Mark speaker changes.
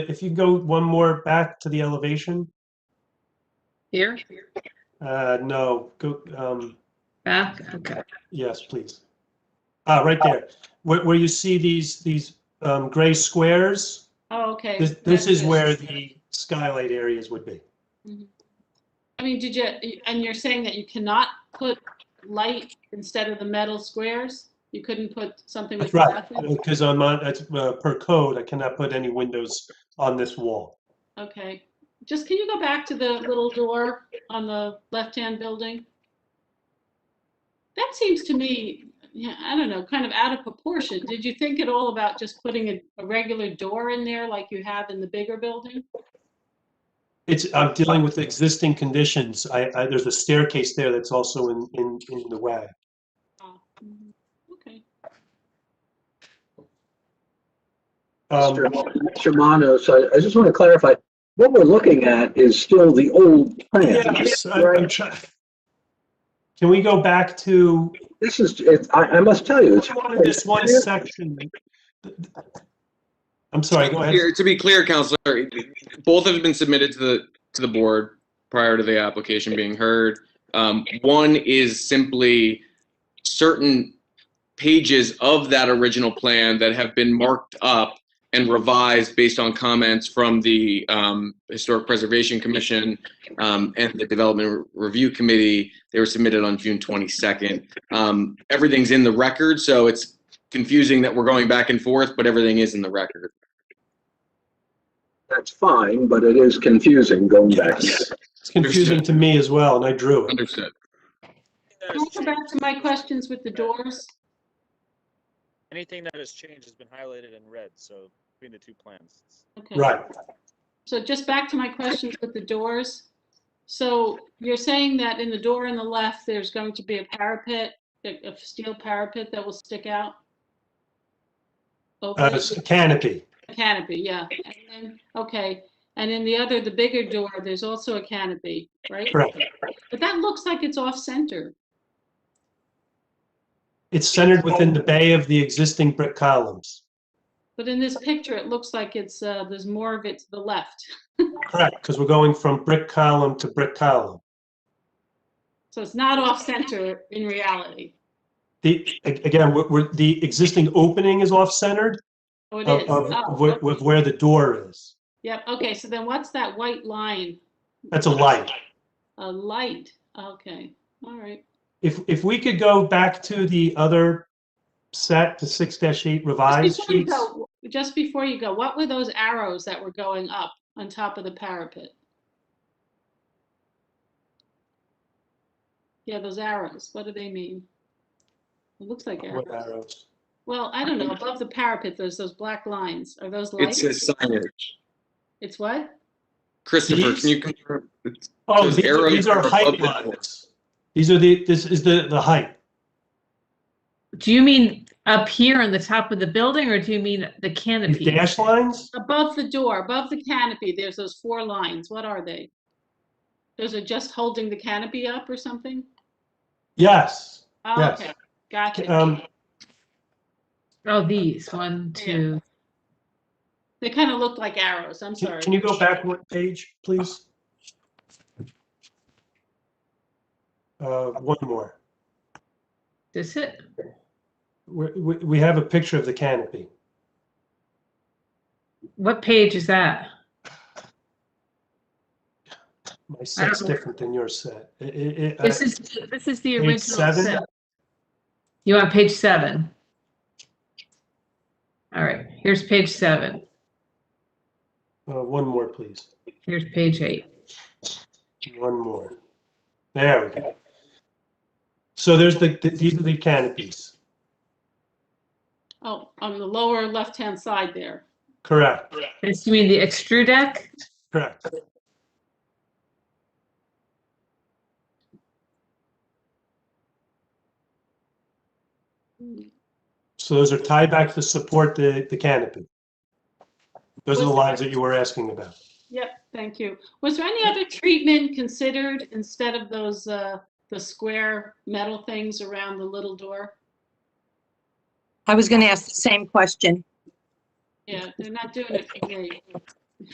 Speaker 1: If you go one more back to the elevation,
Speaker 2: Here,
Speaker 1: uh, no, go, um,
Speaker 2: back, okay.
Speaker 1: yes, please. Ah, right there, where, where you see these, these, um, gray squares,
Speaker 2: Oh, okay.
Speaker 1: this, this is
Speaker 2: That's-
Speaker 1: where the skylight areas would be.
Speaker 2: I mean, did you, and you're saying that you cannot put light instead of the metal squares? You couldn't put something with
Speaker 1: That's right,
Speaker 2: nothing?
Speaker 1: because on my, that's, uh, per code, I cannot put any windows on this wall.
Speaker 2: Okay. Just can you go back to the little door on the left-hand building? That seems to me, yeah, I don't know, kind of out of proportion. Did you think at all about just putting a, a regular door in there like you have in the bigger building?
Speaker 1: It's, I'm dealing with existing conditions. I, I, there's a staircase there that's also in, in, in the way.
Speaker 2: Oh, mhm. Okay.
Speaker 1: Um,
Speaker 3: Mr. Manos, I, I just want to clarify, what we're looking at is still the old plan.
Speaker 1: Yes, I- I'm trying. Can we go back to,
Speaker 3: This is, it, I, I must tell you,
Speaker 1: I
Speaker 3: it's.
Speaker 1: wanted this one section. I'm sorry, go ahead.
Speaker 4: Here, to be clear, Counselor, both have been submitted to the, to the board prior to the application being heard. Um, one is simply certain pages of that original plan that have been marked up and revised based on comments from the, um, Historic Preservation Commission, um, and the Development Review Committee. They were submitted on June twenty-second. Um, everything's in the record, so it's confusing that we're going back and forth, but everything is in the record.
Speaker 3: That's fine, but it is confusing going back.
Speaker 1: Yes. It's confusing to me as well, and I drew it.
Speaker 4: Understood.
Speaker 2: Can I go back to my questions with the doors?
Speaker 5: Anything that has changed has been highlighted in red, so between the two plans. it's-
Speaker 2: Okay.
Speaker 1: Right.
Speaker 2: So just back to my questions with the doors. So you're saying that in the door on the left, there's going to be a parapet, a a steel parapet that will stick out?
Speaker 1: Uh,
Speaker 2: Over
Speaker 1: it's a canopy.
Speaker 2: the canopy, yeah. And then- Okay, and in the other, the bigger door, there's also a canopy, right?
Speaker 1: Correct.
Speaker 2: But that looks like it's off-center.
Speaker 1: It's centered within the bay of the existing brick columns.
Speaker 2: But in this picture, it looks like it's, uh, there's more of it to the left.
Speaker 1: Correct, because we're going from brick column to brick column.
Speaker 2: So it's not off-center in reality.
Speaker 1: The, a- again, we're- we're, the existing opening is off-centered
Speaker 2: Oh, it
Speaker 1: of,
Speaker 2: is. Oh,
Speaker 1: of, with- with
Speaker 2: okay.
Speaker 1: where the door is.
Speaker 2: Yep, okay, so then what's that white line?
Speaker 1: That's a light.
Speaker 2: A light, okay, all right.
Speaker 1: If, if we could go back to the other set, the six dash eight revised
Speaker 2: Just before you
Speaker 1: sheets.
Speaker 2: go, just before you go, what were those arrows that were going up on top of the parapet? Yeah, those arrows, what do they mean? It looks like
Speaker 1: What
Speaker 2: arrows.
Speaker 1: arrows?
Speaker 2: Well, I don't know, above the parapet, there's those black lines, are those
Speaker 4: It's
Speaker 2: lights?
Speaker 4: a signage.
Speaker 2: It's what?
Speaker 4: Christopher,
Speaker 1: These-
Speaker 4: can you confirm? It's-
Speaker 1: Oh,
Speaker 4: Those
Speaker 1: these are-
Speaker 4: arrows
Speaker 1: these are
Speaker 4: are
Speaker 1: height
Speaker 4: above the door.
Speaker 1: lines. These are the, this is the, the height.
Speaker 6: Do you mean up here on the top of the building or do you mean the
Speaker 1: These
Speaker 6: canopy?
Speaker 1: dash lines?
Speaker 2: Above the door, above the canopy, there's those four lines, what are they? Those are just holding the canopy up or something?
Speaker 1: Yes.
Speaker 2: Oh,
Speaker 1: Yes.
Speaker 2: okay, gotcha.
Speaker 1: Um,
Speaker 6: Oh, these, one, two.
Speaker 2: They kind of look like arrows, I'm
Speaker 1: can
Speaker 2: sorry.
Speaker 1: can you go back one page, please? Uh, one more.
Speaker 6: Is it?
Speaker 1: We, we, we have a picture of the canopy.
Speaker 6: What page is that?
Speaker 1: My set's
Speaker 6: don't know.
Speaker 1: different than your set. I- I- uh, I-
Speaker 6: Uh-huh. This is, this is the
Speaker 1: page
Speaker 6: original
Speaker 1: seven?
Speaker 6: set. You want page seven? All right, here's page seven.
Speaker 1: uh, One more, please.
Speaker 6: Here's page eight.
Speaker 1: One more. There we go. So there's the, th- these are the canopies,
Speaker 2: Oh, on the lower left-hand side there.
Speaker 1: correct,
Speaker 6: This, you mean the extrude deck?
Speaker 1: correct. So those are tied back to support the, the canopy. Those are the lines that you were asking about.
Speaker 2: Yep, thank you. Was there any other treatment considered instead of those, uh, the square metal things around the little door?
Speaker 7: I was going to ask the same question.
Speaker 2: Yeah, they're not doing it for me.